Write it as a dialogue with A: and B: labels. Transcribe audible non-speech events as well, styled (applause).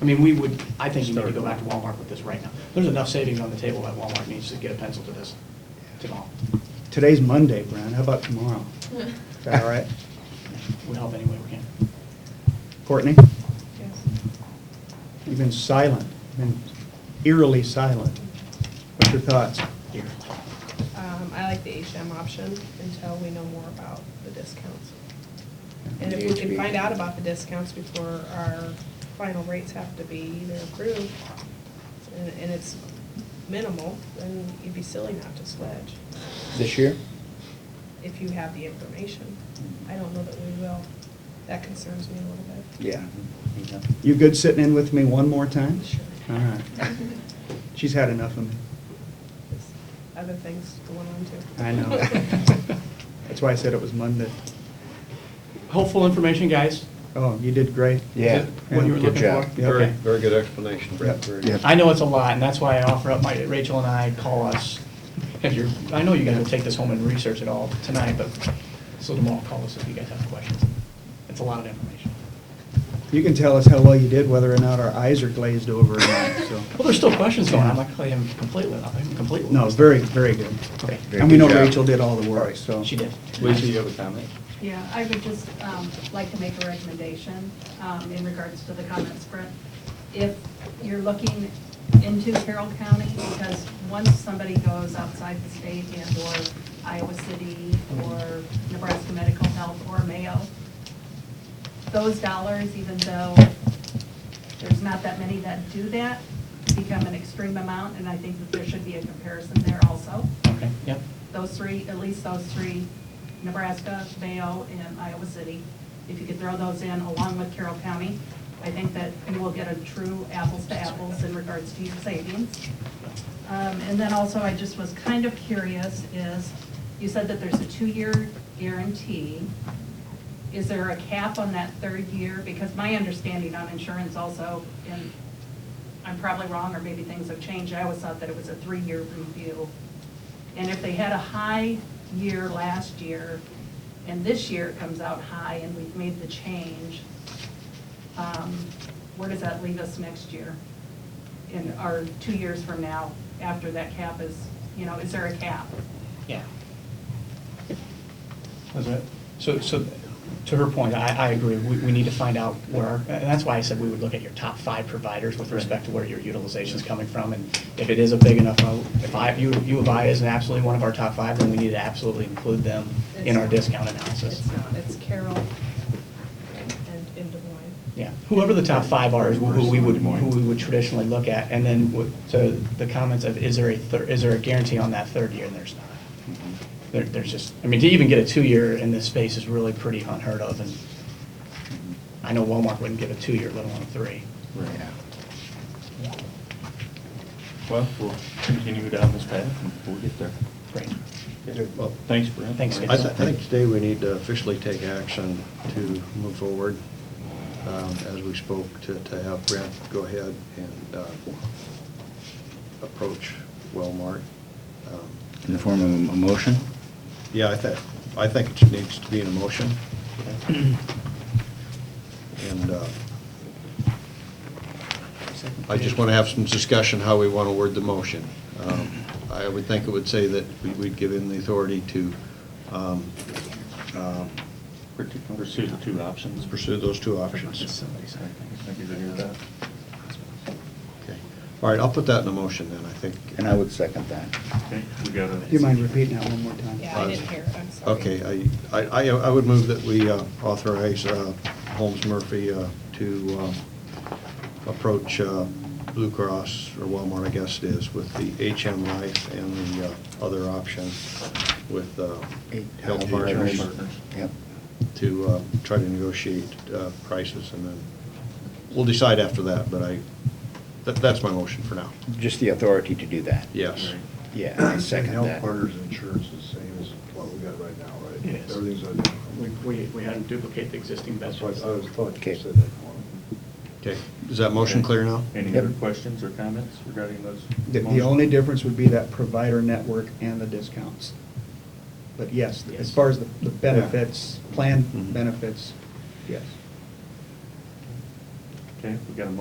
A: I mean, we would, I think you need to go back to Walmart with this right now. There's enough savings on the table that Walmart needs to get a pencil to this tomorrow.
B: Today's Monday, Brian, how about tomorrow? Is that all right?
A: (laughs) We'll help any way we can.
B: Courtney, you've been silent, been eerily silent. What's your thoughts?
A: Here.
C: Um, I like the HM option until we know more about the discounts. And if we can find out about the discounts before our final rates have to be either approved, and, and it's minimal, then you'd be silly not to sledge,
D: This year?
C: if you have the information. I don't know that we will. That concerns me a little bit.
D: Yeah.
B: You good sitting in with me one more time?
C: Sure.
B: All right. She's had enough of me.
C: There's Other things going on too.
A: (laughs)
B: I know. That's why I said it was Monday.
A: Hopeful information, guys.
B: Oh, you did great.
D: Yeah.
A: Is it What you were
B: Good
A: looking
D: job.
A: for.
B: Yeah,
E: Very,
B: okay.
E: very good explanation, Brett.
B: Yep.
E: Very
D: Yep.
E: good.
A: I know it's a lot, and that's why I offer up my, Rachel and I call us, because you're, I know you guys will take this home and research it all tonight, but, so tomorrow, call us if you guys have questions. It's a lot of information.
B: You can tell us how well you did, whether or not our eyes are glazed over or not, so.
A: Well, there's still questions going on, I'm not claiming completely, I'm not completely.
B: No, very, very good.
A: Okay.
D: Very
B: And we know
D: good job.
B: Rachel did all the work, so.
A: She did.
E: Lisa, you have a comment?
F: Yeah, I would just um, like to make a recommendation um, in regards to the comments, Brett. If you're looking into Carroll County, because once somebody goes outside the state and/or Iowa City or Nebraska Medical Health or Mayo, those dollars, even though there's not that many that do that, become an extreme amount, and I think that there should be a comparison there also
A: Okay, yep.
F: those three, at least those three, Nebraska, Mayo, and Iowa City. If you could throw those in along with Carroll County, I think that you will get a true apples to apples in regards to your savings. Um, And then also, I just was kind of curious, is, you said that there's a two-year guarantee. Is there a cap on that third year? Because my understanding on insurance also, and I'm probably wrong, or maybe things have changed, I always thought that it was a three-year review. And if they had a high year last year, and this year it comes out high, and we've made the change, um, where does that leave us next year? In, or two years from now, after that cap is, you know, is there a cap?
A: Yeah. That's right. So, so to her point, I, I agree. We, we need to find out where, and that's why I said we would look at your top five providers with respect to where your utilization's coming from. And if it is a big enough, uh, if I, U, U of I is absolutely one of our top five, then we need to absolutely include them in our discount analysis.
C: It's not, it's Carol (laughs)
B: (laughs)
C: and, and Des Moines.
A: Yeah, whoever the top five are is who we would, who we would traditionally look at. And then what- to the comments of, is there a, thir- is there a guarantee on that third year? And there's not.
E: Mm-hmm.
A: There, there's just, I mean, to even get a two-year in this space is really pretty unheard of. And I know Walmart wouldn't give a two-year, let alone a three.
D: Yeah.
G: Well, we'll continue down this path and we'll get there.
A: Great.
E: Well,
G: Thanks, Brent.
A: Thanks,
E: I
A: guys.
E: th- I think today we need to officially take action to move forward. um, As we spoke, to to have Brent go ahead and uh, approach Wellmark. Um,
D: In the form of a motion?
E: Yeah, I think, I think it needs to be an emotion. And uh, I just want to have some discussion how we want to word the motion. Um, I would think it would say that we- we'd give him the authority to um, um,
G: Pursue the two options.
E: pursue those two options.
G: Thank you for hearing that.
E: Okay. All right, I'll put that in a motion then, I think.
D: And I would second that.
G: Okay, we got
B: Do you
G: a,
B: mind repeating that one more time?
C: Yeah, I didn't hear it, I'm sorry.
E: Uh, Okay, I- I, I, I would move that we uh, authorize uh, Holmes Murphy uh, to uh, approach uh, Blue Cross or Walmart, I guess it is, with the HM Life and the uh, other option with uh, Health Partners
D: Yep.
E: to uh, try to negotiate uh, prices and then we'll decide after that, but I, that, that's my motion for now.
D: Just the authority to do that.
E: Yes.
D: Yeah, I second
H: And
D: that.
H: Health Partners Insurance is the same as what we got right now, right?
A: It is.
H: Everything's identical.
A: We, we, we had them duplicate the existing best.
H: That's why I was thought
D: Okay.
H: you said that.
E: Okay, is that motion clear now?
G: any
D: Yep.
G: other questions or comments regarding those?
B: The, the
G: motions?
B: only difference would be that provider network and the discounts. But yes, as
A: Yes.
B: far as the the benefits,
E: Mhm.
B: planned benefits, yes.
G: Okay, we got a